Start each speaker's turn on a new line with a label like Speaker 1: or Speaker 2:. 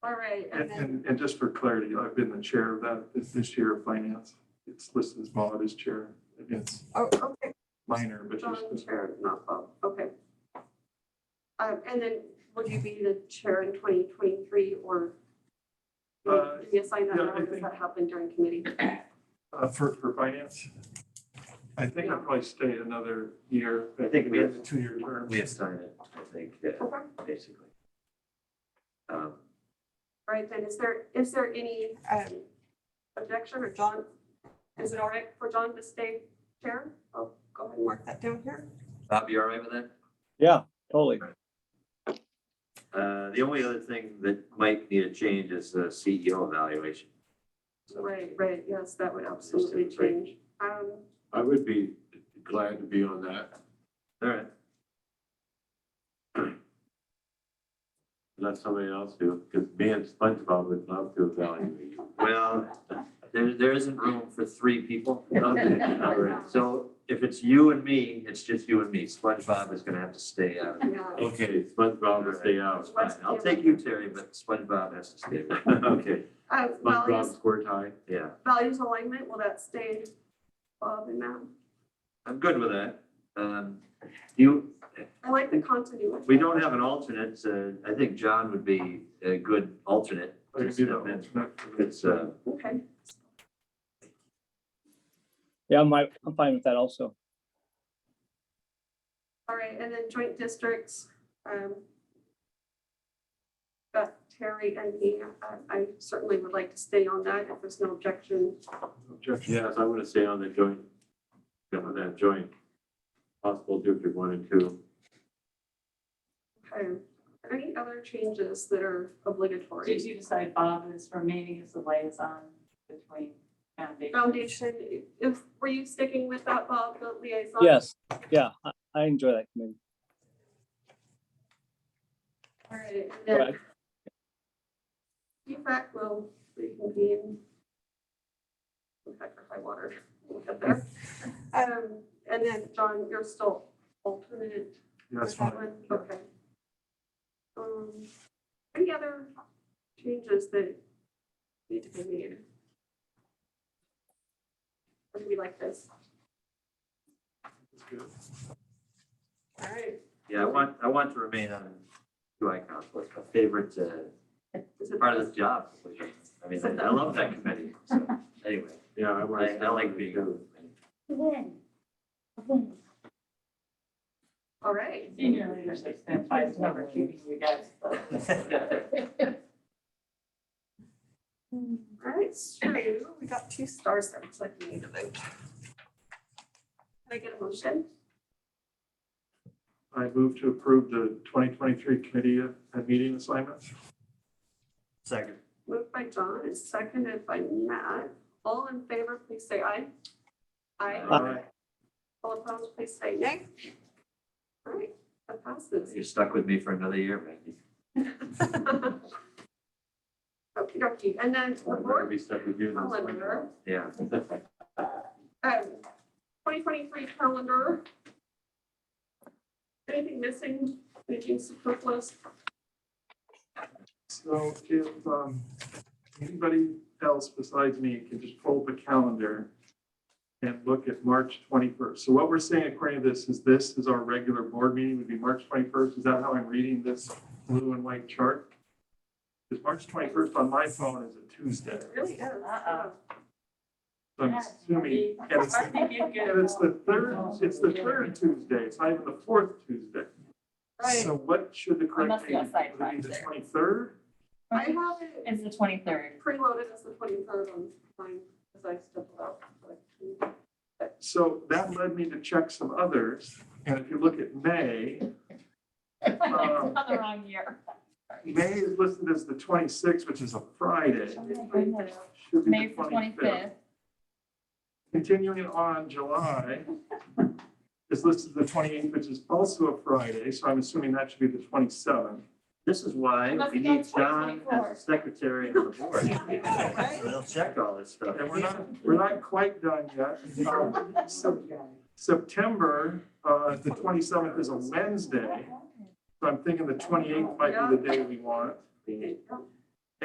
Speaker 1: All right, and
Speaker 2: And,
Speaker 1: then,
Speaker 2: and, and just for clarity, I've been the chair of that this, this year of finance. It's listed as Bob as chair. It's
Speaker 1: oh, okay,
Speaker 2: minor, but
Speaker 1: John,
Speaker 2: just.
Speaker 1: chair, not Bob, okay. Um, and then would you be the chair in twenty twenty-three or?
Speaker 2: Uh,
Speaker 1: Did you assign that,
Speaker 2: yeah,
Speaker 1: or
Speaker 2: I
Speaker 1: does
Speaker 2: think-
Speaker 1: that happen during committee?
Speaker 2: Uh, for, for finance, I think I'll probably stay another year.
Speaker 3: I think we have-
Speaker 2: a Two-year term.
Speaker 3: We assign it, I think, yeah,
Speaker 1: Okay.
Speaker 3: basically. Um,
Speaker 1: All right, then, is there, is there any
Speaker 4: Um,
Speaker 1: objection or John? Is it all right for John to stay chair? I'll go ahead and mark that down here.
Speaker 3: Bob, you all right with that?
Speaker 5: Yeah, totally.
Speaker 3: Uh, the only other thing that might need a change is the CEO evaluation. So-
Speaker 1: Right, right, yes, that would absolutely
Speaker 3: Just a break.
Speaker 1: change. Um,
Speaker 6: I would be glad to be on that.
Speaker 3: All right,
Speaker 6: Let somebody else do, because me and SpongeBob would love to evaluate.
Speaker 3: well, there, there isn't room for three people.
Speaker 6: Okay,
Speaker 3: All right, so if it's you and me, it's just you and me. SpongeBob is gonna have to stay out.
Speaker 1: yeah.
Speaker 6: Okay, Oh, SpongeBob will stay out.
Speaker 3: Fine, I'll take you, Terry, but SpongeBob has to stay.
Speaker 6: Okay,
Speaker 1: Uh,
Speaker 6: SpongeBob
Speaker 1: values,
Speaker 6: score tie.
Speaker 3: Yeah,
Speaker 1: values alignment, will that stay, Bob, in that?
Speaker 3: I'm good with that. Um, you,
Speaker 1: I like the continuity.
Speaker 3: We don't have an alternate, so I think John would be a good alternate.
Speaker 2: I could be the alternate.
Speaker 3: It's, uh,
Speaker 1: Okay,
Speaker 5: Yeah, my, I'm fine with that also.
Speaker 1: all right, and then joint districts, um, got Terry and me, um, I, I certainly would like to stay on that if there's no objection.
Speaker 2: Objection.
Speaker 6: Yes, I want to stay on the joint, yeah, on that joint, possible district one and two.
Speaker 1: Okay, Um, are there any other changes that are obligatory?
Speaker 7: Did you decide Bob is remaining as the liaison between foundation?
Speaker 1: Foundation, if, were you sticking with that, Bob, the liaison?
Speaker 5: Yes, yeah, I, I enjoy that committee.
Speaker 1: All right, and
Speaker 5: But
Speaker 1: then E PFAC will reconvene. PFAC or high water, we'll get there. Um, and then, John, you're still alternate
Speaker 2: Yeah,
Speaker 1: for
Speaker 2: That's fine.
Speaker 1: that one, okay. Um, any other changes that need to be made? Or do we like this?
Speaker 2: That's good.
Speaker 1: All right,
Speaker 3: yeah, I want, I want to remain on two icons, was my favorite, uh,
Speaker 1: is it
Speaker 3: part of this job. I mean, I I love that committee, so, anyway,
Speaker 6: Yeah, I want
Speaker 3: I,
Speaker 6: to.
Speaker 3: I like being on it.
Speaker 1: all right?
Speaker 7: Senior leadership, spent five number keeping you guys.
Speaker 1: All right, so we got two stars there, it's like we need to vote. Can I get a motion?
Speaker 2: I move to approve the 2023 committee uh, and meeting assignments.
Speaker 3: Second.
Speaker 1: Moved by John and seconded by Matt. All in favor, please say aye. Aye.
Speaker 2: Aye.
Speaker 1: All opposed, please say nay. All right, that passes.
Speaker 3: You're stuck with me for another year, Maggie.
Speaker 1: Okey dokey, and then the
Speaker 6: I'm gonna
Speaker 1: board
Speaker 6: be stuck with you.
Speaker 1: calendar,
Speaker 3: Yeah,
Speaker 1: um, twenty twenty-three calendar. Anything missing, anything superfluous?
Speaker 2: So if um, anybody else besides me can just pull up a calendar and look at March 21st. So what we're saying according to this is this is our regular board meeting would be March 21st. Is that how I'm reading this blue and white chart? Because March 21st on my phone is a Tuesday.
Speaker 1: It Really is.
Speaker 7: Uh-oh.
Speaker 2: So I'm assuming, and it's,
Speaker 7: I
Speaker 2: and
Speaker 7: think you'd get it.
Speaker 2: it's the third, it's the third Tuesday. It's not even the fourth Tuesday.
Speaker 1: Right,
Speaker 2: So what should the correct
Speaker 7: must be
Speaker 2: date
Speaker 7: outside
Speaker 2: be? Would it be? The
Speaker 7: Friday.
Speaker 2: 23rd?
Speaker 1: I have it
Speaker 7: It's the twenty-third.
Speaker 1: preloaded as the twenty-third on mine, as I stepped out. like,
Speaker 2: So that led me to check some others, and if you look at May, um,
Speaker 7: Not the wrong year.
Speaker 2: May is listed as the twenty-sixth, which is a Friday.
Speaker 7: Oh my goodness.
Speaker 2: Should be
Speaker 7: May
Speaker 2: the
Speaker 7: for
Speaker 2: twenty-fifth.
Speaker 7: twenty-fifth.
Speaker 2: Continuing on, July is listed as the twenty-eighth, which is also a Friday, so I'm assuming that should be the twenty-seventh.
Speaker 3: this is why
Speaker 7: Must
Speaker 3: we
Speaker 7: be on
Speaker 3: need John as
Speaker 7: 2024.
Speaker 3: the secretary of the board. They'll check all this stuff.
Speaker 2: And we're not, we're not quite done yet. Um, Sep- September, uh, the twenty-seventh is a Wednesday, so I'm thinking the twenty-eighth might be the day we want.
Speaker 1: we-